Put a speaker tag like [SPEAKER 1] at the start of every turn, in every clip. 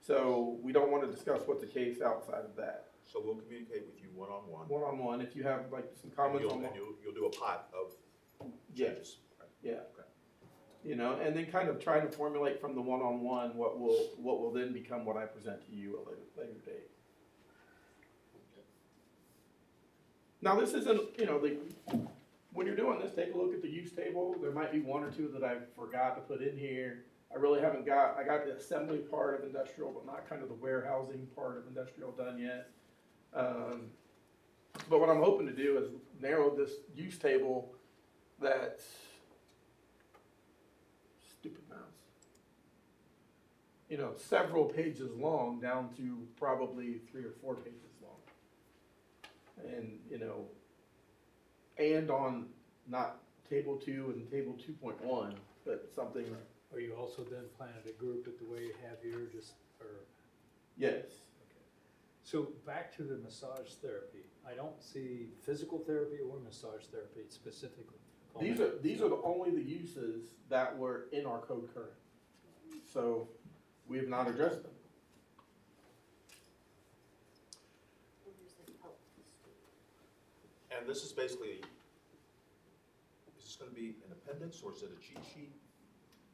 [SPEAKER 1] So we don't want to discuss what the case outside of that.
[SPEAKER 2] So we'll communicate with you one-on-one.
[SPEAKER 1] One-on-one, if you have like some comments
[SPEAKER 2] You'll-
[SPEAKER 1] on,
[SPEAKER 2] And you'll, you'll do a pot of
[SPEAKER 1] yeah,
[SPEAKER 2] changes.
[SPEAKER 1] yeah.
[SPEAKER 2] Okay.
[SPEAKER 1] You know, and then kind of try to formulate from the one-on-one what will, what will then become what I present to you at a later, later date. Now, this isn't, you know, the, when you're doing this, take a look at the use table. There might be one or two that I forgot to put in here. I really haven't got, I got the assembly part of industrial, but not kind of the warehousing part of industrial done yet. Um, But what I'm hoping to do is narrow this use table that stupid mouse. You know, several pages long down to probably three or four pages long. And, you know, and on not table two and table two point one, but something,
[SPEAKER 3] Are you also then planning to group it the way you have here, just, or,
[SPEAKER 1] yes.
[SPEAKER 3] so back to the massage therapy. I don't see physical therapy or massage therapy specifically.
[SPEAKER 1] These are, these are the only the uses that were in our code current. So we have not addressed them.
[SPEAKER 2] And this is basically, is this gonna be an appendix or is it a cheat sheet?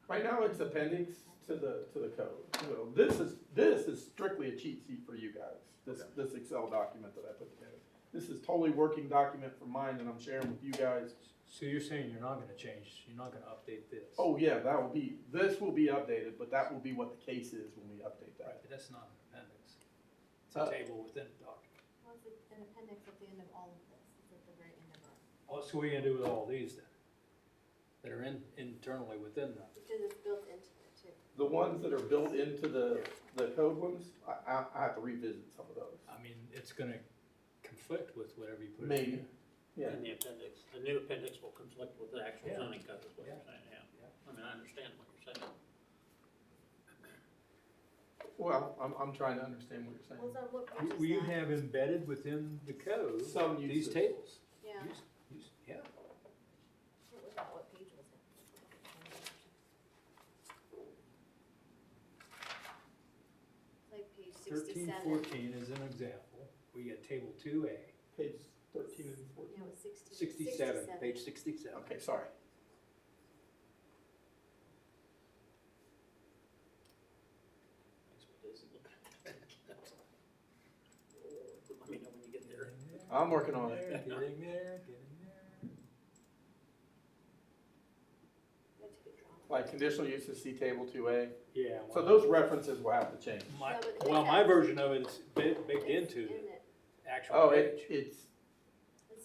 [SPEAKER 1] Right now, it's appendix to the, to the code. So this is, this is strictly a cheat sheet for you guys, this,
[SPEAKER 2] Okay.
[SPEAKER 1] this Excel document that I put together. This is totally working document for mine that I'm sharing with you guys.
[SPEAKER 3] So you're saying you're not gonna change, you're not gonna update this?
[SPEAKER 1] Oh, yeah, that will be, this will be updated, but that will be what the case is when we update
[SPEAKER 3] Right,
[SPEAKER 1] that.
[SPEAKER 3] but that's not an appendix. It's
[SPEAKER 1] Uh,
[SPEAKER 3] a table within the document.
[SPEAKER 4] Well, it's like an appendix at the end of all of this, it's at the very end of it,
[SPEAKER 3] Oh, so what are you gonna do with all these then? That are in, internally within that?
[SPEAKER 4] because it's built into it too.
[SPEAKER 1] The ones that are built into the, the code ones, I, I, I have to revisit some of those.
[SPEAKER 3] I mean, it's gonna conflict with whatever you put in here.
[SPEAKER 1] Maybe, yeah.
[SPEAKER 5] in the appendix. The new appendix will conflict with the actual
[SPEAKER 3] Yeah.
[SPEAKER 5] zoning code, is what you're
[SPEAKER 3] Yeah.
[SPEAKER 5] saying, yeah.
[SPEAKER 3] Yeah.
[SPEAKER 5] I mean, I understand what you're saying.
[SPEAKER 1] Well, I'm, I'm trying to understand what you're
[SPEAKER 4] Was
[SPEAKER 1] saying.
[SPEAKER 4] on what page
[SPEAKER 3] Uh, You-
[SPEAKER 4] is
[SPEAKER 3] Will you
[SPEAKER 4] that?
[SPEAKER 3] have embedded within the code
[SPEAKER 1] Some
[SPEAKER 3] these
[SPEAKER 1] uses.
[SPEAKER 3] tables?
[SPEAKER 4] Yeah,
[SPEAKER 3] Use- use- Yeah,
[SPEAKER 4] what was that, what page was it? Like page
[SPEAKER 3] thirteen,
[SPEAKER 4] sixty-seven,
[SPEAKER 3] fourteen is an example. We got table two A,
[SPEAKER 1] Page thirteen and fourteen.
[SPEAKER 4] no, it's sixty.
[SPEAKER 3] sixty-seven, page sixty-seven.
[SPEAKER 1] Okay, sorry.
[SPEAKER 5] That's what it is. Let me know when you get there.
[SPEAKER 3] Getting there,
[SPEAKER 1] I'm working on it.
[SPEAKER 3] getting there, Getting there, getting there.
[SPEAKER 4] That's a good drawing.
[SPEAKER 1] Like conditional uses, see table two A.
[SPEAKER 3] Yeah.
[SPEAKER 1] So
[SPEAKER 3] well,
[SPEAKER 1] those references will have to change.
[SPEAKER 3] my-
[SPEAKER 4] No, but it
[SPEAKER 3] Well, my
[SPEAKER 4] has-
[SPEAKER 3] version of it is bit- baked
[SPEAKER 4] It's
[SPEAKER 3] into
[SPEAKER 4] in
[SPEAKER 3] the
[SPEAKER 4] it.
[SPEAKER 3] actual
[SPEAKER 1] Oh, it,
[SPEAKER 3] page.
[SPEAKER 1] it's,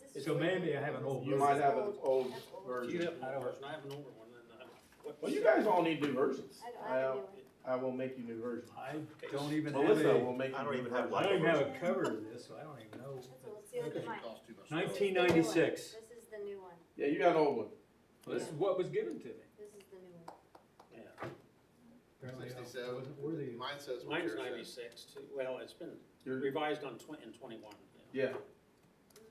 [SPEAKER 4] Is this
[SPEAKER 3] So
[SPEAKER 4] the-
[SPEAKER 3] maybe I have an old
[SPEAKER 1] you might have an old version.
[SPEAKER 5] have an
[SPEAKER 3] I
[SPEAKER 5] older
[SPEAKER 3] don't-
[SPEAKER 5] version? I have an older one, and I. what-
[SPEAKER 1] Well, you guys all need new versions.
[SPEAKER 4] I don't, I
[SPEAKER 1] I,
[SPEAKER 4] have a
[SPEAKER 1] uh,
[SPEAKER 4] new one.
[SPEAKER 1] I will make you new versions.
[SPEAKER 3] I don't even have
[SPEAKER 1] Melissa
[SPEAKER 3] a,
[SPEAKER 1] will make
[SPEAKER 2] I
[SPEAKER 1] you
[SPEAKER 2] don't
[SPEAKER 1] new
[SPEAKER 2] even have
[SPEAKER 1] versions.
[SPEAKER 3] I
[SPEAKER 2] one.
[SPEAKER 3] don't even have a cover to this, so I don't even know.
[SPEAKER 4] That's all, it's the other mine.
[SPEAKER 3] Nineteen ninety-six.
[SPEAKER 4] This is the new one,
[SPEAKER 1] Yeah, you got an old one.
[SPEAKER 3] This is what was given to me.
[SPEAKER 4] this is the new one.
[SPEAKER 5] Yeah.
[SPEAKER 3] Apparently, I wasn't worthy
[SPEAKER 6] Sixty-seven,
[SPEAKER 3] of-
[SPEAKER 6] mine says what
[SPEAKER 5] Mine's
[SPEAKER 6] yours says.
[SPEAKER 5] ninety-six, too. well, it's been
[SPEAKER 1] You're-
[SPEAKER 5] revised on twen- in twenty-one. yeah.
[SPEAKER 1] yeah,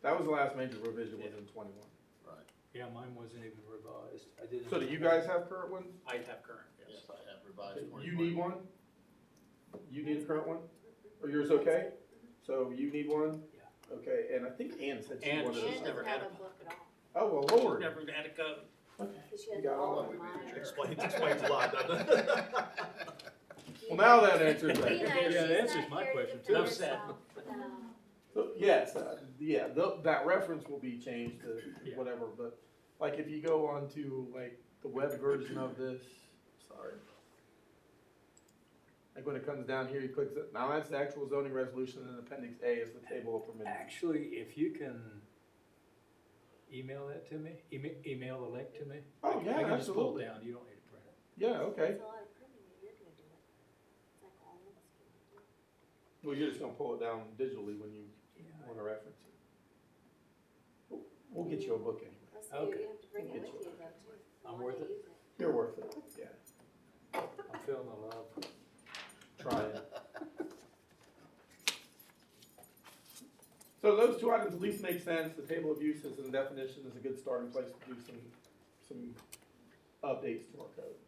[SPEAKER 1] that was the last major revision was in twenty-one.
[SPEAKER 6] Right,
[SPEAKER 3] Yeah, mine wasn't even revised. I didn't.
[SPEAKER 1] So do you guys have current ones?
[SPEAKER 5] I have current,
[SPEAKER 6] yes,
[SPEAKER 5] yes.
[SPEAKER 6] I have revised twenty-one.
[SPEAKER 1] You need one? You need a current one? Are yours okay? So you need one?
[SPEAKER 3] Yeah.
[SPEAKER 1] Okay, and I think Ann said she
[SPEAKER 5] Ann-
[SPEAKER 1] wanted.
[SPEAKER 5] She's
[SPEAKER 4] Anne
[SPEAKER 1] a-
[SPEAKER 5] never
[SPEAKER 4] doesn't
[SPEAKER 5] had
[SPEAKER 4] have a
[SPEAKER 5] one.
[SPEAKER 4] book at all.
[SPEAKER 1] Oh, well, Lord.
[SPEAKER 5] Never had a code.
[SPEAKER 4] Cause she
[SPEAKER 1] You
[SPEAKER 4] has
[SPEAKER 1] got
[SPEAKER 4] all
[SPEAKER 1] all
[SPEAKER 4] of
[SPEAKER 6] of it.
[SPEAKER 4] mine.
[SPEAKER 2] Explains, explains a lot, doesn't it?
[SPEAKER 1] Well, now that answers that.
[SPEAKER 4] Lena,
[SPEAKER 3] Yeah,
[SPEAKER 4] she's
[SPEAKER 3] that answers
[SPEAKER 4] not
[SPEAKER 3] my
[SPEAKER 4] here to
[SPEAKER 3] question,
[SPEAKER 4] defend
[SPEAKER 5] too. Upset.
[SPEAKER 4] herself. No.
[SPEAKER 1] So, Yes, uh, yeah, tho- that reference will be changed to
[SPEAKER 3] Yeah.
[SPEAKER 1] whatever, but like if you go on to like the web version of this, sorry. Like when it comes down here, you click, it- now that's the actual zoning resolution and appendix A is the table of permitted.
[SPEAKER 3] Actually, if you can email that to me, email, email the link to me.
[SPEAKER 1] Oh, yeah,
[SPEAKER 3] I can just pull
[SPEAKER 1] absolutely.
[SPEAKER 3] it down, you don't need to print it.
[SPEAKER 1] Yeah, okay,
[SPEAKER 4] It's a lot of printing, but you're gonna do it. It's like all of us can do it.
[SPEAKER 1] well, you're just gonna pull it down digitally when you wanna reference it. We'll- We'll get you a book anyway,
[SPEAKER 4] Plus, you- you
[SPEAKER 3] Okay.
[SPEAKER 4] have to bring it
[SPEAKER 1] Get
[SPEAKER 4] with you though too. if you
[SPEAKER 3] I'm
[SPEAKER 4] want
[SPEAKER 3] worth it.
[SPEAKER 4] to use
[SPEAKER 1] you're worth it, yeah,
[SPEAKER 3] I'm feeling the love.
[SPEAKER 1] try it. So those two items at least make sense, the table of uses and definition is a good starting place to do some, some updates to our code.